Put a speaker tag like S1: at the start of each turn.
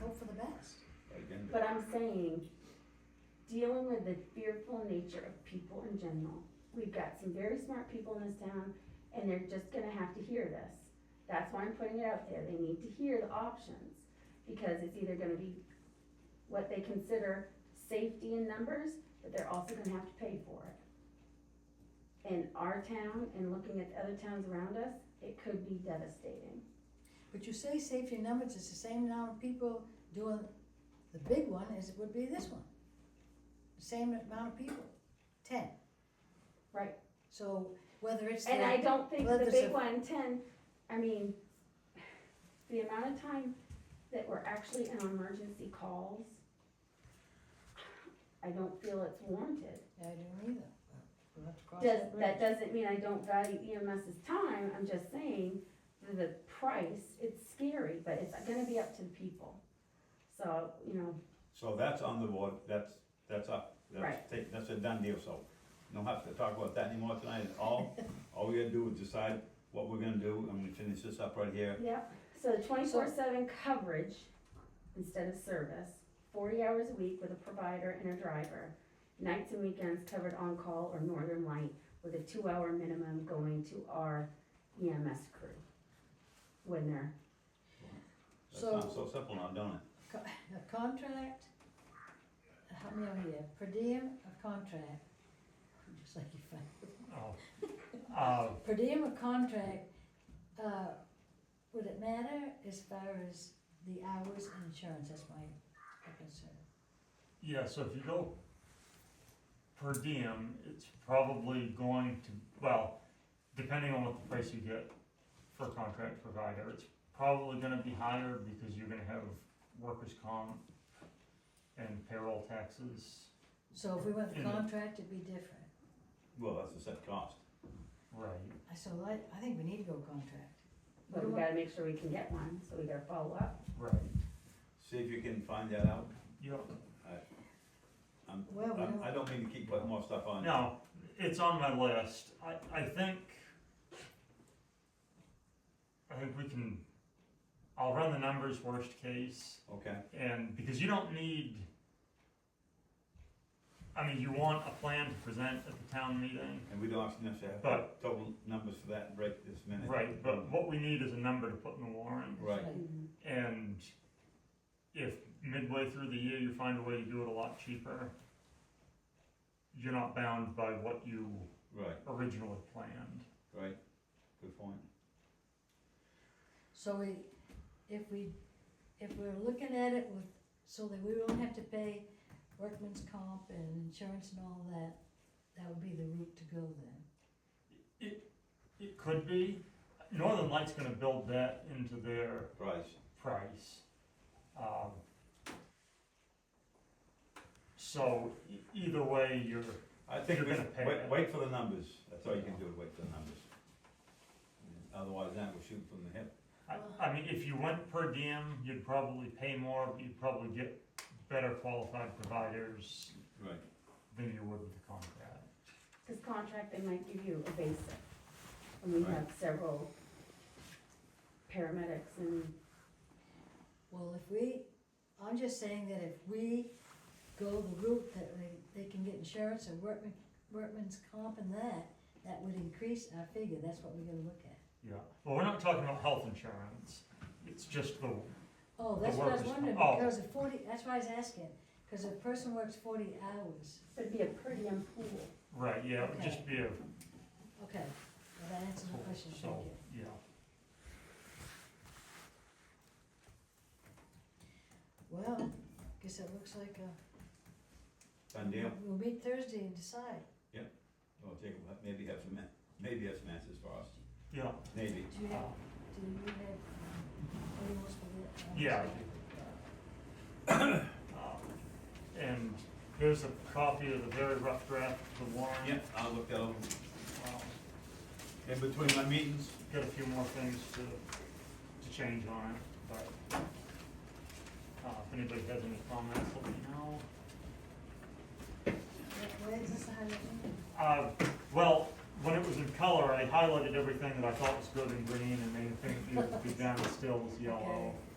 S1: hope for the best.
S2: Again,
S3: But I'm saying, dealing with the fearful nature of people in general, we've got some very smart people in this town, and they're just gonna have to hear this. That's why I'm putting it out there, they need to hear the options, because it's either gonna be what they consider safety in numbers, but they're also gonna have to pay for it. In our town, and looking at the other towns around us, it could be devastating.
S1: But you say safety in numbers, it's the same amount of people doing the big one as it would be this one. Same amount of people, ten.
S3: Right.
S1: So whether it's.
S3: And
S1: the-
S3: I don't think
S1: Well,
S3: the
S1: there's
S3: big
S1: a-
S3: one, ten, I mean, the amount of time that we're actually in emergency calls, I don't feel it's warranted.
S1: I don't either. We'll have to cross
S3: Does,
S1: bridge.
S3: that doesn't mean I don't value EMS's time, I'm just saying, that the price, it's scary, but it's gonna be up to the people. So, you know,
S2: So that's on the board, that's, that's up,
S3: Right.
S2: that's, ta- that's a done deal, so, no have to talk about that anymore tonight at all. All we gotta do is decide what we're gonna do, and we finish this up right here.
S3: Yep, so twenty-four seven coverage instead of service, forty hours a week with a provider and a driver. Nights and weekends covered on-call or Northern Light with a two-hour minimum going to our EMS crew when they're,
S2: That
S1: So-
S2: sounds so simple now, don't it?
S1: Co- A contract, how many are here? Per diem, a contract. Just like you find.
S4: Oh, uh,
S1: Per diem, a contract, uh, would it matter as far as the hours and insurance? That's my concern.
S4: yeah, so if you go per diem, it's probably going to, well, depending on what the price you get for contract provider, it's probably gonna be higher because you're gonna have workers' comp and payroll taxes,
S1: So if we went the
S4: In the-
S1: contract, it'd be different.
S2: Well, that's a set cost.
S4: right?
S1: I- So I, I think we need to go contract.
S3: but we gotta make sure we can get one, so we gotta follow up.
S4: Right.
S2: See if you can find that out.
S4: Yep.
S2: I'm,
S1: Well, we
S2: I'm-
S1: don't-
S2: I don't mean to keep putting more stuff on.
S4: No, it's on my list. I, I think, I think we can, I'll run the numbers worst case.
S2: Okay,
S4: And because you don't need, I mean, you want a plan to present at the town meeting.
S2: and we don't actually necessarily have
S4: But-
S2: total numbers for that right this minute.
S4: Right, but what we need is a number to put in the warrant.
S2: Right,
S4: And if midway through the year you find a way to do it a lot cheaper, you're not bound by what you
S2: right,
S4: originally planned.
S2: right, good point.
S1: So we, if we, if we're looking at it with, so that we don't have to pay workman's comp and insurance and all that, that would be the route to go then.
S4: It could be, Northern Light's gonna build that into their
S2: Price,
S4: price. Um, So e- either way, you're,
S2: I think
S4: You're
S2: we,
S4: gonna pay
S2: wait,
S4: that.
S2: wait for the numbers, that's all you can do, is wait for the numbers. Otherwise, then we're shooting from the hip.
S4: I, I mean, if you went per diem, you'd probably pay more, but you'd probably get better qualified providers
S2: Right.
S4: than you would with the contract.
S3: Cause contract, they might give you a basic, and we
S2: Right.
S3: have several paramedics and
S1: Well, if we, I'm just saying that if we go the route that they, they can get insurance and workman, workman's comp and that, that would increase our figure, that's what we're gonna look at.
S4: Yeah, well, we're not talking about health insurance, it's just the,
S1: Oh, that's what I was
S4: workers'
S1: wondering,
S4: comp. Oh.
S1: because of forty, that's why I was asking, cause a person works forty hours,
S3: it'd be a pretty diem pool.
S4: right, yeah, it would just be a,
S1: okay, well, that answers my question, thank
S4: Oh, so,
S1: you.
S4: yeah.
S1: Well, guess it looks like a.
S2: Done deal?
S1: We'll meet Thursday and decide.
S2: Well, Jacob, maybe have some, an- maybe have some answers for us,
S4: Yeah, um,
S2: maybe.
S1: Do you have, do you have, um, what do you want us to do?
S4: Yeah. um, and here's a copy of the very rough draft of the warrant.
S2: Yep, I'll look that over.
S4: Um,
S2: In between my meetings,
S4: Got a few more things to, to change on it, but, uh, if anybody has any comments, let me know.
S1: Where- Where is this the highlight?
S4: Uh, well, when it was in color, I highlighted everything that I thought was good in green, and the only thing that needed to be done still was yellow. Uh,
S1: Okay.